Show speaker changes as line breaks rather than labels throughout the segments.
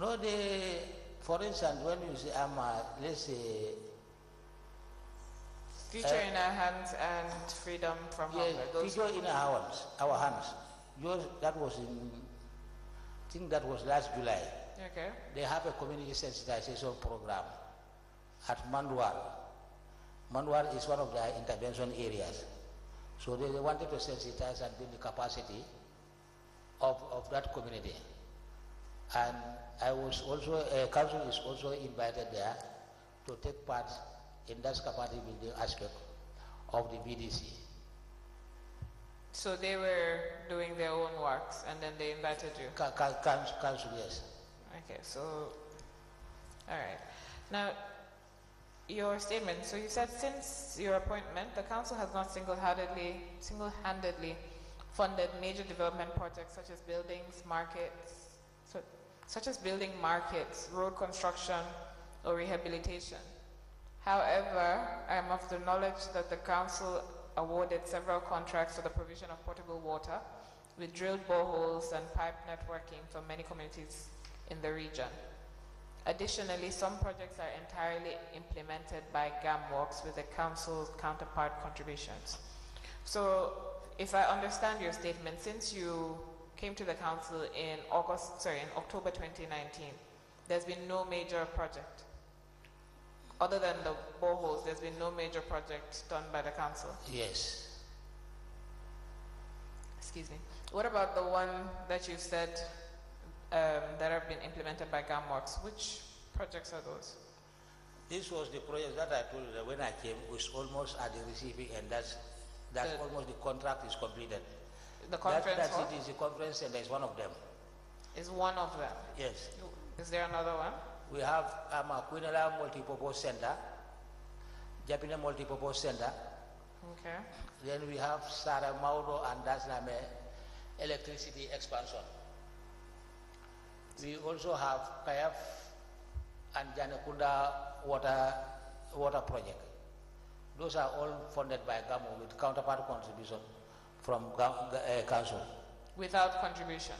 No, the, for instance, when you say, I'm a, let's say,
Future in our hands and freedom from
yes,
hunger. Those
teacher in our hands, our hands. Yours, that was in, I think that was last July.
okay.
They have a community sensitization program at Mandwar. Mandwar is one of their intervention areas. So they, they wanted to sensitize and build the capacity of, of that community. And I was also, uh, council is also invited there to take part in that capacity building aspect of the BDC.
So they were doing their own works and then they invited you.
Ca- ca- Council, council, yes.
Okay, so, all right. Now, your statement, so you said since your appointment, the council has not single-handedly, single-handedly funded major development projects such as buildings, markets, so, such as building markets, road construction, or rehabilitation. However, I am of the knowledge that the council awarded several contracts for the provision of potable water with drilled boreholes and pipe networking for many communities in the region. Additionally, some projects are entirely implemented by GAMWORKS with the council's counterpart contributions. So, if I understand your statement, since you came to the council in August, sorry, in October 2019, there's been no major project. Other than the boreholes, there's been no major project done by the council.
Yes.
Excuse me. What about the one that you said um, that have been implemented by GAMWORKS? Which projects are those?
This was the project that I told you that when I came was almost at the receiving and that's that's
The-
almost the contract is completed.
The conference
that, that's
hall
it is the conference center is one of them.
is one of them.
Yes.
Is there another one?
We have um, Aquinala Multipurpose Center, Japina Multipurpose Center,
Okay.
then we have Sara Mauro and Dasname electricity expansion. We also have Kayaf and Janakunda water water project. Those are all funded by GAMO with counterpart contribution from Ga- Ga- eh, council.
Without contribution.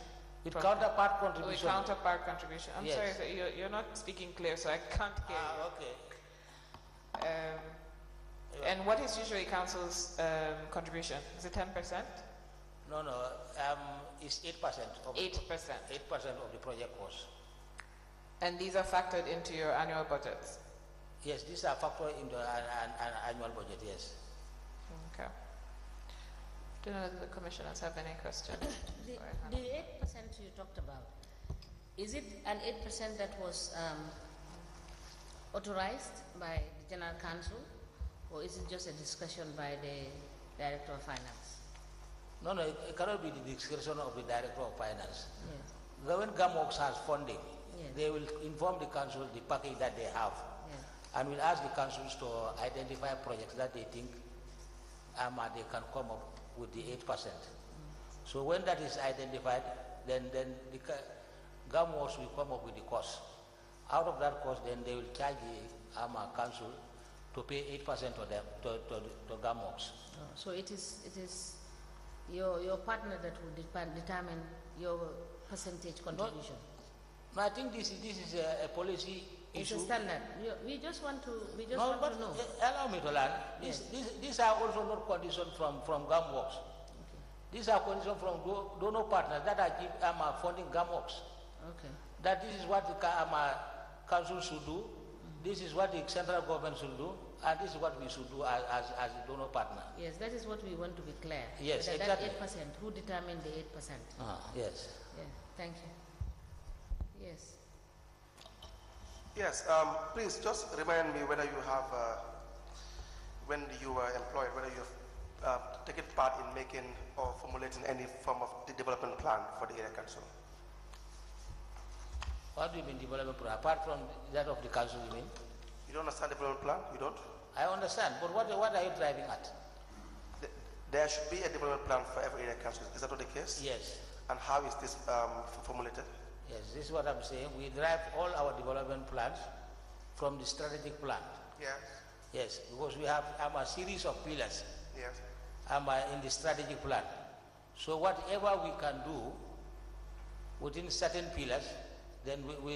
With
From- Oh,
counterpart
With
contribution.
counterpart contribution. I'm
Yes.
sorry, sir, you're, you're not speaking clear, so I can't hear
Ah, okay.
you. Um, and what is usually council's um, contribution? Is it 10%?
No, no. Um, it's eight percent of
8%.
eight percent of the project cost.
And these are factored into your annual budgets?
Yes, these are factored into an, an, an annual budget. Yes.
Okay. Do none of the commissioners have any questions?
The
Go ahead, Hannah.
the eight percent you talked about, is it an eight percent that was um, authorized by the general council? Or is it just a discussion by the director of finance?
No, no, it, it cannot be the discretion of the director of finance.
Yes,
The- When GAMWORKS has funding,
Yes.
they will inform the council the package that they have
yes.
and will ask the councils to identify projects that they think um, uh, they can come up with the 8%.
Mm.
So when that is identified, then, then the ca- GAMWORKS will come up with the cost. Out of that cost, then they will charge the um, uh, council to pay 8% to them, to, to, to GAMWORKS.
Oh, So it is, it is your, your partner that will depa- determine your percentage contribution?
No, I think this is, this is a, a policy
It's
issue.
a standard. You- We just want to, we just
No,
want
but
to know.
uh, allow me to learn. This, this, these are also not conditions from, from GAMWORKS. These are conditions from do- donor partners that are give, um, are funding GAMWORKS.
Okay,
That this is what the ca- um, uh, council should do, this is what the central government should do, and this is what we should do as, as, as a donor partner.
yes, that is what we want to be clear.
Yes,
That-
exactly.
That eight percent, who determined the eight percent?
Yes.
Yeah, thank you. Yes,
Yes, um, please just remind me whether you have, uh, when you were employed, whether you've uh, taken part in making or formulating any form of de- development plan for the area council.
What do you mean development plan? Apart from that of the council, you mean?
You don't understand development plan? You don't?
I understand, but what, what are you driving at?
Th- There should be a development plan for every area council. Is that not the case?
Yes.
And how is this um, f- formulated?
Yes, this is what I'm saying. We derive all our development plans from the strategic plan.
Yes.
Yes, because we have um, a series of pillars
Yes.
um, uh, in the strategic plan. So whatever we can do within certain pillars, then we, we